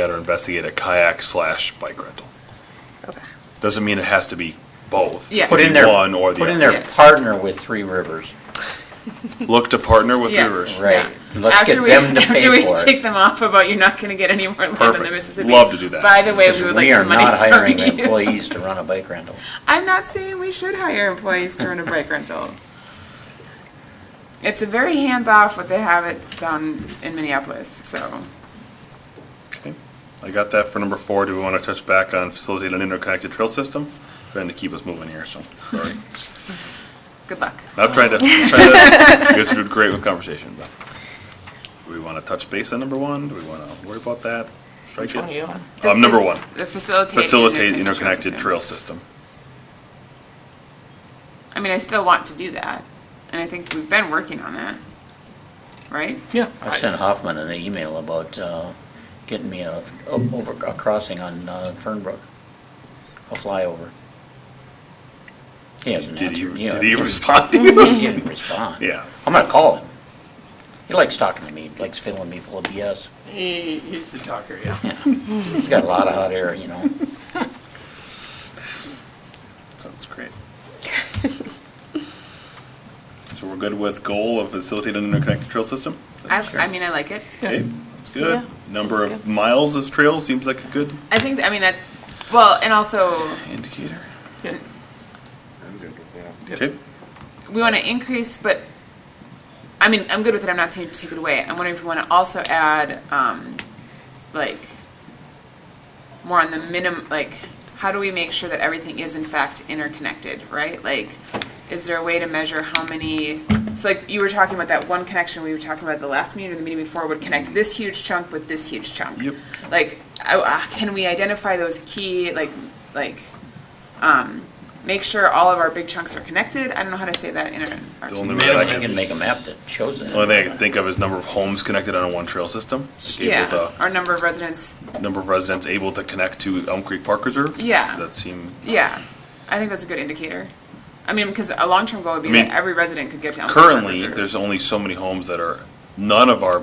at or investigate a kayak slash bike rental. Okay. Doesn't mean it has to be both. Yeah. It could Put be in there- One or the Put in other. there, Yes. partner with Three Rivers. Look to partner with Yes. Rivers. Right. Yeah. Let's after get we, them to after pay we for it. take them off about you're not going to get any more land in the Perfect. Mississippi. Love to do that. By the way, we would like We are some money not from hiring you. employees to run a bike rental. I'm not saying we should hire employees to run a bike rental. It's a very hands off what they have it down in Minneapolis. So Okay. I got that for number four. Do we want to touch back on facilitate an interconnected trail system? Trying to keep us moving here, so, sorry. good luck. I'm trying to, trying to, you guys are doing great with conversation, but. Do we want to touch base on number one? Do we want to worry about that? Strike it? The Um, number fac- one, The facilitate. facilitate interconnected system. trail system. I mean, I still want to do that, and I think we've been working on that, right? Yeah. I sent Hoffman an email about uh, getting me a, over, a crossing on uh, Fernbrook, a flyover. He hasn't Did he, answered. yeah, did he respond to you? He didn't respond. Yeah. I'm gonna call him. He likes talking to me, He likes filling me full of BS. He, he's the talker, yeah. He's got a lot of hot air, you know. Sounds great. So we're good with goal of facilitate an interconnected trail system? I, I mean, I like it. Okay, that's good. Yeah, Number that's of miles of trail seems like a good I think. I mean that. Well, and also indicator. Yeah. Okay, we want to increase, but I mean, I'm good with it. I'm not saying to take it away. I'm wondering if we want to also add, um, like, more on the minimum. Like, how do we make sure that everything is in fact interconnected? Right? Like, is there a way to measure how many? So, like, you were talking about that one connection we were talking about the last meeting or the meeting before would connect this huge chunk with this huge chunk. Yep. Like, I, uh, can we identify those key like like make sure all of our big chunks are connected. I don't know how to say that in our. The only way I I you can make a map that shows that. only thing I can think of is number of homes connected on a one trail system. Like able Yeah, our number of residents, to- Number of residents able to connect to Elm Creek Park Reserve. Yeah. That seem, yeah. I think that's a good indicator. I mean, because a long-term goal would be I mean, that every resident could get to Elm Creek Park currently, Reserve. there's only so many homes that are, none of our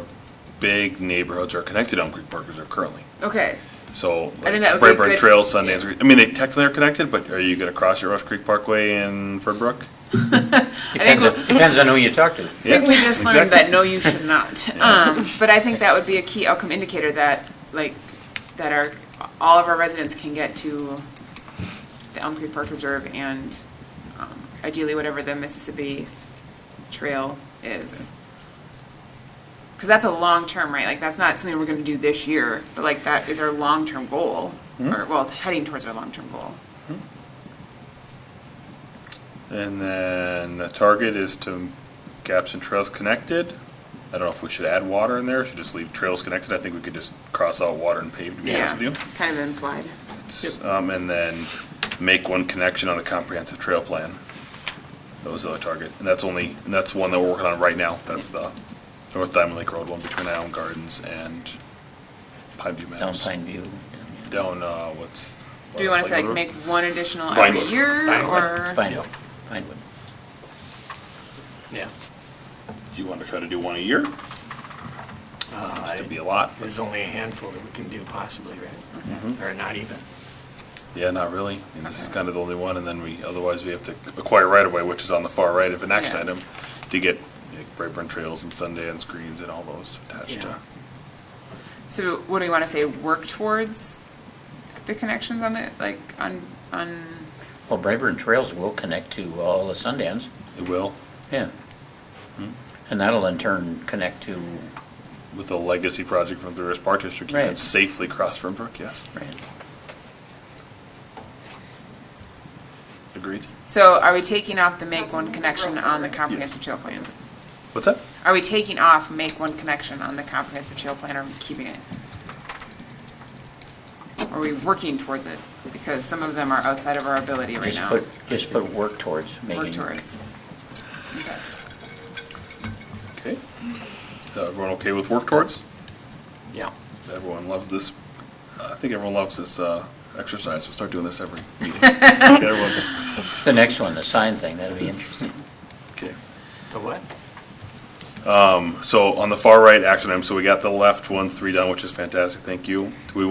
big neighborhoods are connected to Elm Creek Park Reserve currently. Okay, So, I think like, that would be a Brightburn good- Trail, Sundance, yeah. Creek- I mean, they technically are connected, but are you gonna cross your Rush Creek Parkway in Fernbrook? Depends, I think on- depends on who you talk to. I think we just learned exactly. that no, you should not. Um, But I think that would be a key outcome indicator that, like, that our, all of our residents can get to the Elm Creek Park Reserve and um, ideally whatever the Mississippi Trail is. Because that's a long-term, right? Like, that's not something we're going to do this year, but like, that is our long-term goal, or, well, heading towards our long-term goal. And then the target is to gaps and trails connected. I don't know if we should add water in there, or should just leave trails connected. I think we could just cross out water and paved, to be honest Yeah, with you. kind of implied. It's, Um, and then make one connection on the comprehensive trail plan. That was the other target, and that's only, and that's one that we're working on right now. That's the North Diamond Lake Road one between Island Gardens and Pine View Meadows. Down Pine View. down, uh, what's? Do we want to say, like, Road? make one additional every Vinewood. year, Vinewood. or? Pinewood, Pinewood. Yeah. Do you want to try to do one a year? Uh, Used to be a lot. but- There's only a handful that we can do possibly, right? Or not even. Yeah, not really. I mean, this is kind of the only one, and then we, otherwise we have to acquire right away, which is on the far right of an action Yeah. item, to get like, Brightburn Trails and Sundance Greens and all those attached to. Yeah. So what do we want to say, work towards the connections on the, like, on, on, Well, Brayburn Trails will connect to all the Sundance, It will, Hmm? yeah. And that'll in turn connect to, with a legacy project from the Rivers Park District, you can Right. safely cross from Brook, yes. right, Agreed. so are we taking off the make one connection on the comprehensive trail plan? What's that? Are we taking off make one connection on the comprehensive trail plan, or are we keeping it? Are we working towards it? Because some of them are outside of our ability right just now. put, just put work towards making. Work towards. Okay. Is everyone okay with work towards? Yeah. Everyone loves this, I think everyone loves this, uh, exercise. We'll start doing this every meeting. Everyone's, The next one, the sign thing, that'll be interesting. okay. The what? So on the far right action item, so we got the left ones three done, which is fantastic, thank you. Do we